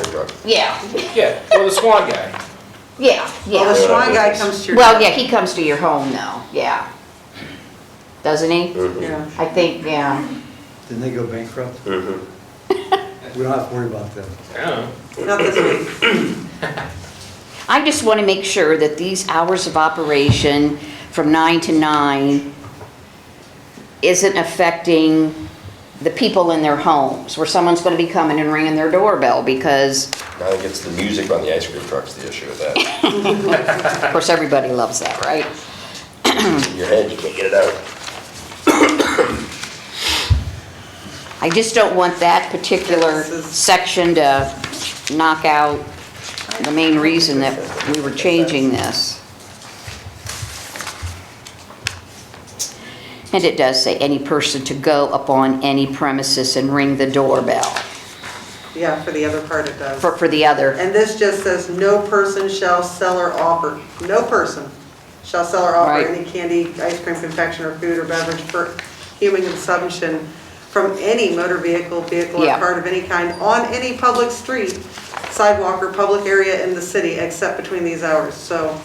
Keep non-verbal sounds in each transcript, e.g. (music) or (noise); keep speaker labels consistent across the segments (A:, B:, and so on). A: truck.
B: Yeah,
C: Yeah, well, the Swan guy.
B: yeah,
D: Well, the
B: yeah.
D: Swan guy comes to your.
B: Well, yeah, he comes to your home though, yeah. Doesn't he?
D: Yeah.
B: I think, yeah.
E: Didn't they go bankrupt?
A: Mhm.
E: We don't have to worry about that.
C: I don't know.
D: Not this week.
B: I just want to make sure that these hours of operation from nine to nine isn't affecting the people in their homes, where someone's going to be coming and ringing their doorbell because,
A: I think it's the music on the ice cream truck's the issue with that.
B: of course, everybody loves that, right?
A: In your head, you can't get it out.
B: I just don't want that particular
D: This is-
B: section to knock out the main reason that we were changing this. And it does say any person to go upon any premises and ring the doorbell
D: Yeah, for the other part it does.
B: for, for the other.
D: And this just says, no person shall sell or offer, no person shall sell or offer
B: Right.
D: any candy, ice cream, confection, or food or beverage for human consumption from any motor vehicle, vehicle, or
B: Yeah.
D: cart of any kind on any public street, sidewalk, or public area in the city except between these hours. So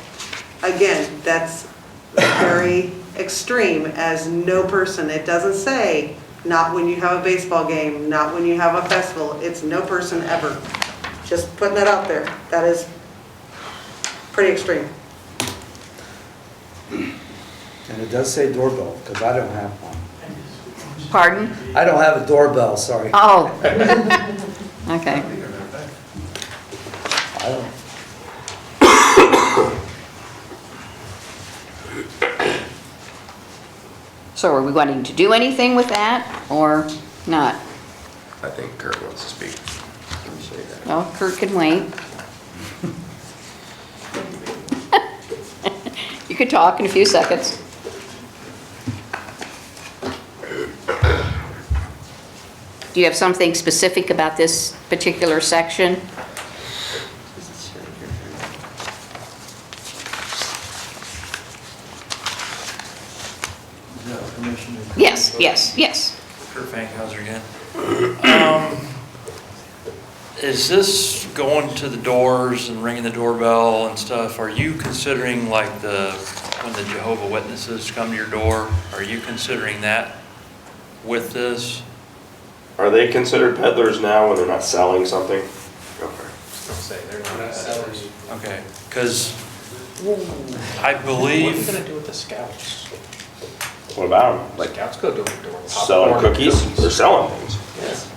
D: again, that's very extreme as no person. It doesn't say, not when you have a baseball game, not when you have a festival. It's no person ever. Just putting that out there. That is pretty extreme.
E: And it does say doorbell, because I don't have one.
B: Pardon?
E: I don't have a doorbell, sorry. I
B: Oh. (laughs) Okay.
E: don't.
B: So are we wanting to do anything with that or not?
A: I think Kurt wants to speak. Let me say that.
B: Well, Kurt can wait. You could talk in a few seconds. Do you have something specific about this particular section?
F: No, Commissioner.
B: Yes, yes, yes.
F: Kurt Fankhauser again. Um, Is this going to the doors and ringing the doorbell and stuff? Are you considering like the, when the Jehovah Witnesses come to your door? Are you considering that with this?
G: Are they considered peddlers now when they're not selling something? Okay.
C: Say they're not sellers.
F: Okay, because I
C: What are we
F: believe.
C: gonna do with the scouts?
G: What about them? Like
C: Scouts go door to door.
G: selling
C: popcorn,
G: cookies? They're selling things.
C: Yes.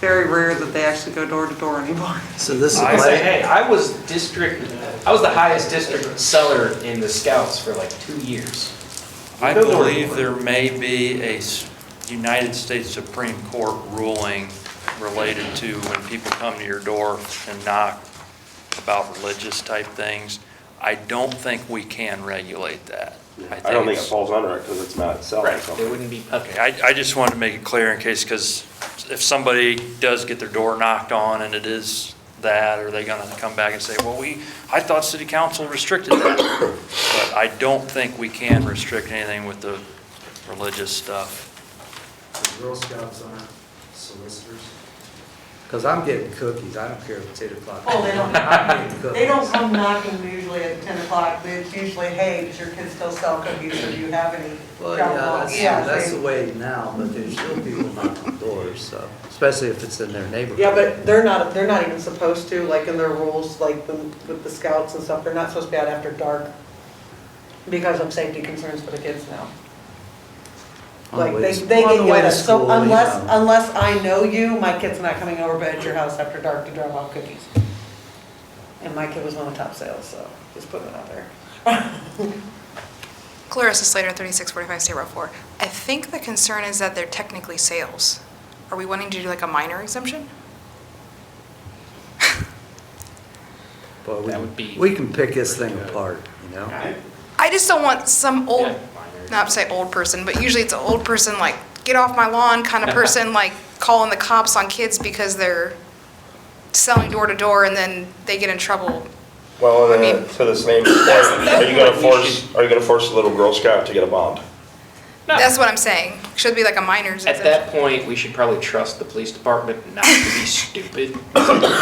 D: Very rare that they actually go door to door anymore.
E: So this is
C: I say,
E: my,
C: hey, I was district, I was the highest district seller in the scouts for like two years.
F: I
C: Go to work.
F: believe there may be a s- United States Supreme Court ruling related to when people come to your door and knock about religious type things. I don't think we can regulate that.
G: I don't think it
F: it's-
G: falls under it because it's not selling
C: They
G: something.
C: wouldn't be.
F: Okay, I, I just wanted to make it clear in case, because if somebody does get their door knocked on and it is that, are they gonna come back and say, well, we, I thought city council restricted that? But I don't think we can restrict anything with the religious stuff.
E: the Girl Scouts aren't solicitors. Because I'm getting cookies, I don't care if it's eight o'clock.
H: Oh, they don't.
E: (laughs) I'm getting
H: They don't
E: cookies.
H: come knocking usually at 10 o'clock, it's usually, hey, does your kid still sell cookies, or do you have any?
E: Well, yeah,
H: Yeah,
E: that's, that's
H: they-
E: the way now, but there's still people knocking on doors, so, especially if it's in their neighborhood.
D: Yeah, but they're not, they're not even supposed to, like in their rules, like the- with the scouts and stuff, they're not supposed to be out after dark because of safety concerns for the kids now.
E: On the
D: Like,
E: way
D: they,
E: to-
D: they
E: on the
D: get
E: way to
D: yelled at, so
E: school, you
D: unless,
E: know.
D: unless I know you, my kid's not coming over but at your house after dark to drop off cookies. And my kid was one of the top sales, so just putting it out there.
I: Clarissa Slater, 3645 State Route 4. I think the concern is that they're technically sales. Are we wanting to do like a minor exemption?
E: But we-
C: That would be-
E: We can pick this thing apart, you know?
I: I just don't want some
C: Yeah,
I: old,
C: minor.
I: not to say old person, but usually it's an old person, like, get off my lawn kind
C: (laughs)
I: of person, like calling the cops on kids because they're selling door to door and then they get in trouble.
G: Well, and
I: I
G: then
I: mean-
G: to the same point, are you
C: what
G: gonna
C: we
G: force, are you gonna force a little Girl Scout to get a bond?
C: No.
I: That's what I'm saying. Should be like a minor
C: At
G: (laughs)
I: exemption.
C: that point, we should probably trust the police department not to be stupid.